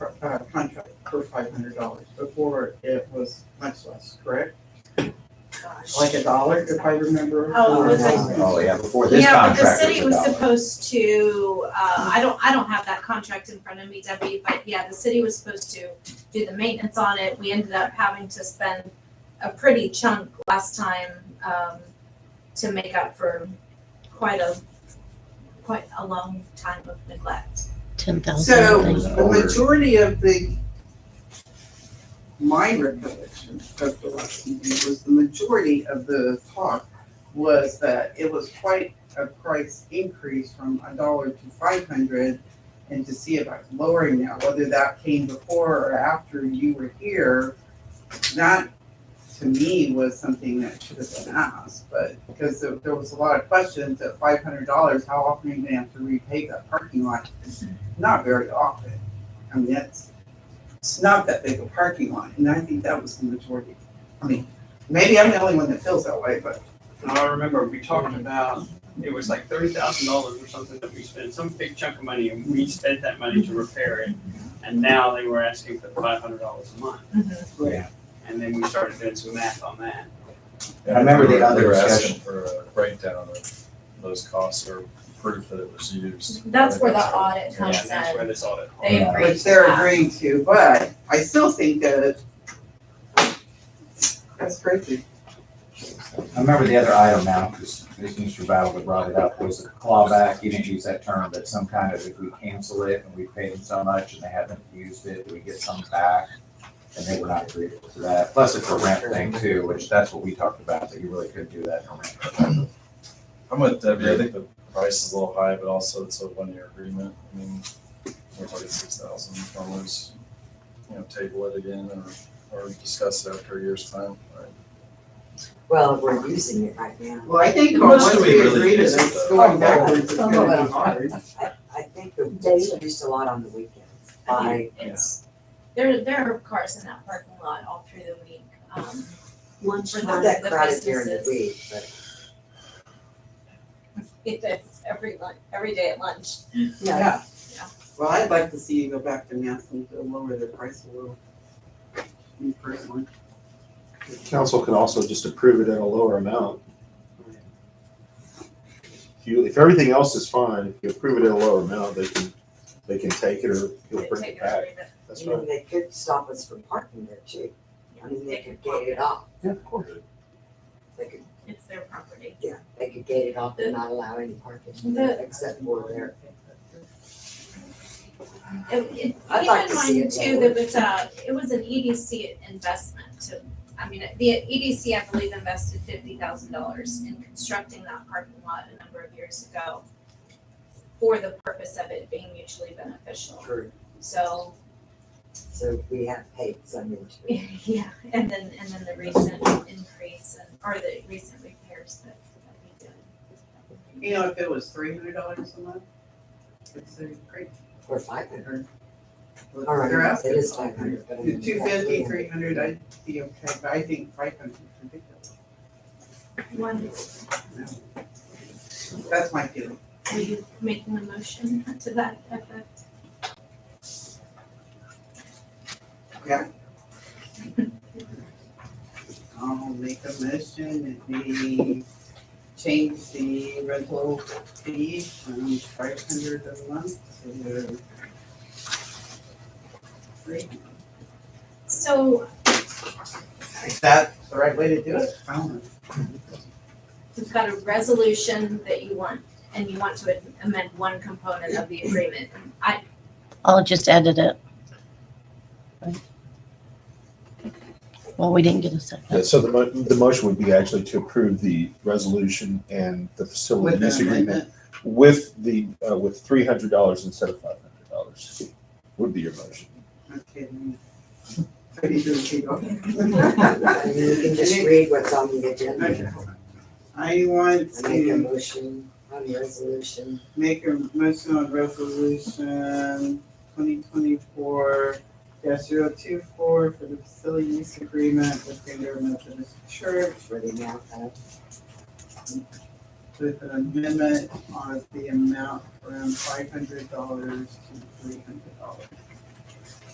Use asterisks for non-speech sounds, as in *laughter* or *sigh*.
uh, contract for five hundred dollars. Before, it was much less, correct? Like a dollar, if I remember. Oh, it was correctly. like- Oh, yeah, before this Yeah, but contract the was city a was dollar. supposed to, uh, I don't, I don't have that contract in front of me, Debbie, but yeah, the city was supposed to do the maintenance on it. We ended up having to spend a pretty chunk last time, um, to make up for quite a, quite a long time of neglect. ten So thousand. the majority of the, my recollection of the last meeting was the majority of the talk was that it was quite a price increase from a dollar to five hundred and to see about lowering that, whether that came before or after you were here. That to me was something that should have been asked, but because there, there was a lot of questions at five hundred dollars, how often are you gonna have to repay that parking lot? not very often. I mean, that's, it's not that big a parking lot, and I think that was the majority. I mean, maybe I'm the only one that feels that way, but And I remember we talked about, it was like thirty thousand dollars or something that we spent, some big chunk of money, and we spent that money to repair it. And now they were asking for five hundred dollars a month, and then we started doing some math on that. I remember the other They were discussion. asking for a breakdown of those costs or proof that it was used. That's where the audit Yeah, And comes that's in. where this audit. They agreed. which they're to that. agreeing to, but I still think that that's crazy. I remember the other item now, because Mr. Battle had brought it up, was a clawback, you didn't use that term, but some kind of, if we cancel it and we paid them so much and they haven't used it, do we get some back? And they were not agreeable to that, plus it's a rent thing too, which that's what we talked about, that you really couldn't do that in a rent. I'm with Debbie, I think the price is a little high, but also it's a one-year agreement. I mean, we're talking six thousand dollars. You know, table it again or, or discuss it after a year's time, right? Well, we're using it right now. Well, I think How much once do we we really agree to use it, this, though? going backwards is Oh, gonna well. be hard. I, I think that it's used a lot on the weekends by, It's, there, there are cars in that parking lot all through the week, um, not that crowded during the week, but. it is every lunch, every day at lunch. Yeah. Yeah. Well, I'd like to see you go back to Mansfield, to lower their price a little. Me personally. Council could also just approve it at a lower amount. If you, if everything else is fine, if you approve it at a lower amount, they can, they can take it or you'll bring Take it back. away the- That's I right. mean, they could stop us from parking there too. I mean, they could gate it off. Yeah, of course. They could, It's their property. yeah, they could gate it off and not allow any parking The- except for there. It, it, keep I'd like in to see mind it too, lowered. that was a, it was an EDC investment to, I mean, the EDC, I believe, invested fifty thousand dollars in constructing that parking lot a number of years ago for the purpose of it being mutually beneficial. True. So, So we have paid some into it. *laughs* yeah, and then, and then the recent increase and, or the recent repairs that that we did. You know, if it was three hundred dollars a month, it's a great Or five hundred. All They're right, it asking. is five hundred, but I mean. Two fifty, three hundred, I'd be okay, but I think five hundred is ridiculous. One, That's my feeling. are you making a motion to that effect? I'll make a motion that we change the rental fee from five hundred a month to three. So, Is that the right way to do it? I don't know. we've got a resolution that you want, and you want to amend one component of the agreement. I, I'll just edit it. Well, we didn't get a second. Yeah, so the mo- the motion would be actually to approve the resolution and the facility With use an agreement with the, uh, with three hundred dollars instead of five hundred dollars would be your motion. Okay. *laughs* then. So you do it, you *laughs* And go. then you can just read what's on the agenda. I want I make a to motion on the resolution. make a motion on resolution twenty twenty-four 24 for the facility use agreement with Greater Methodist Church for the amount of, with an amendment on the amount from five hundred dollars to three hundred dollars.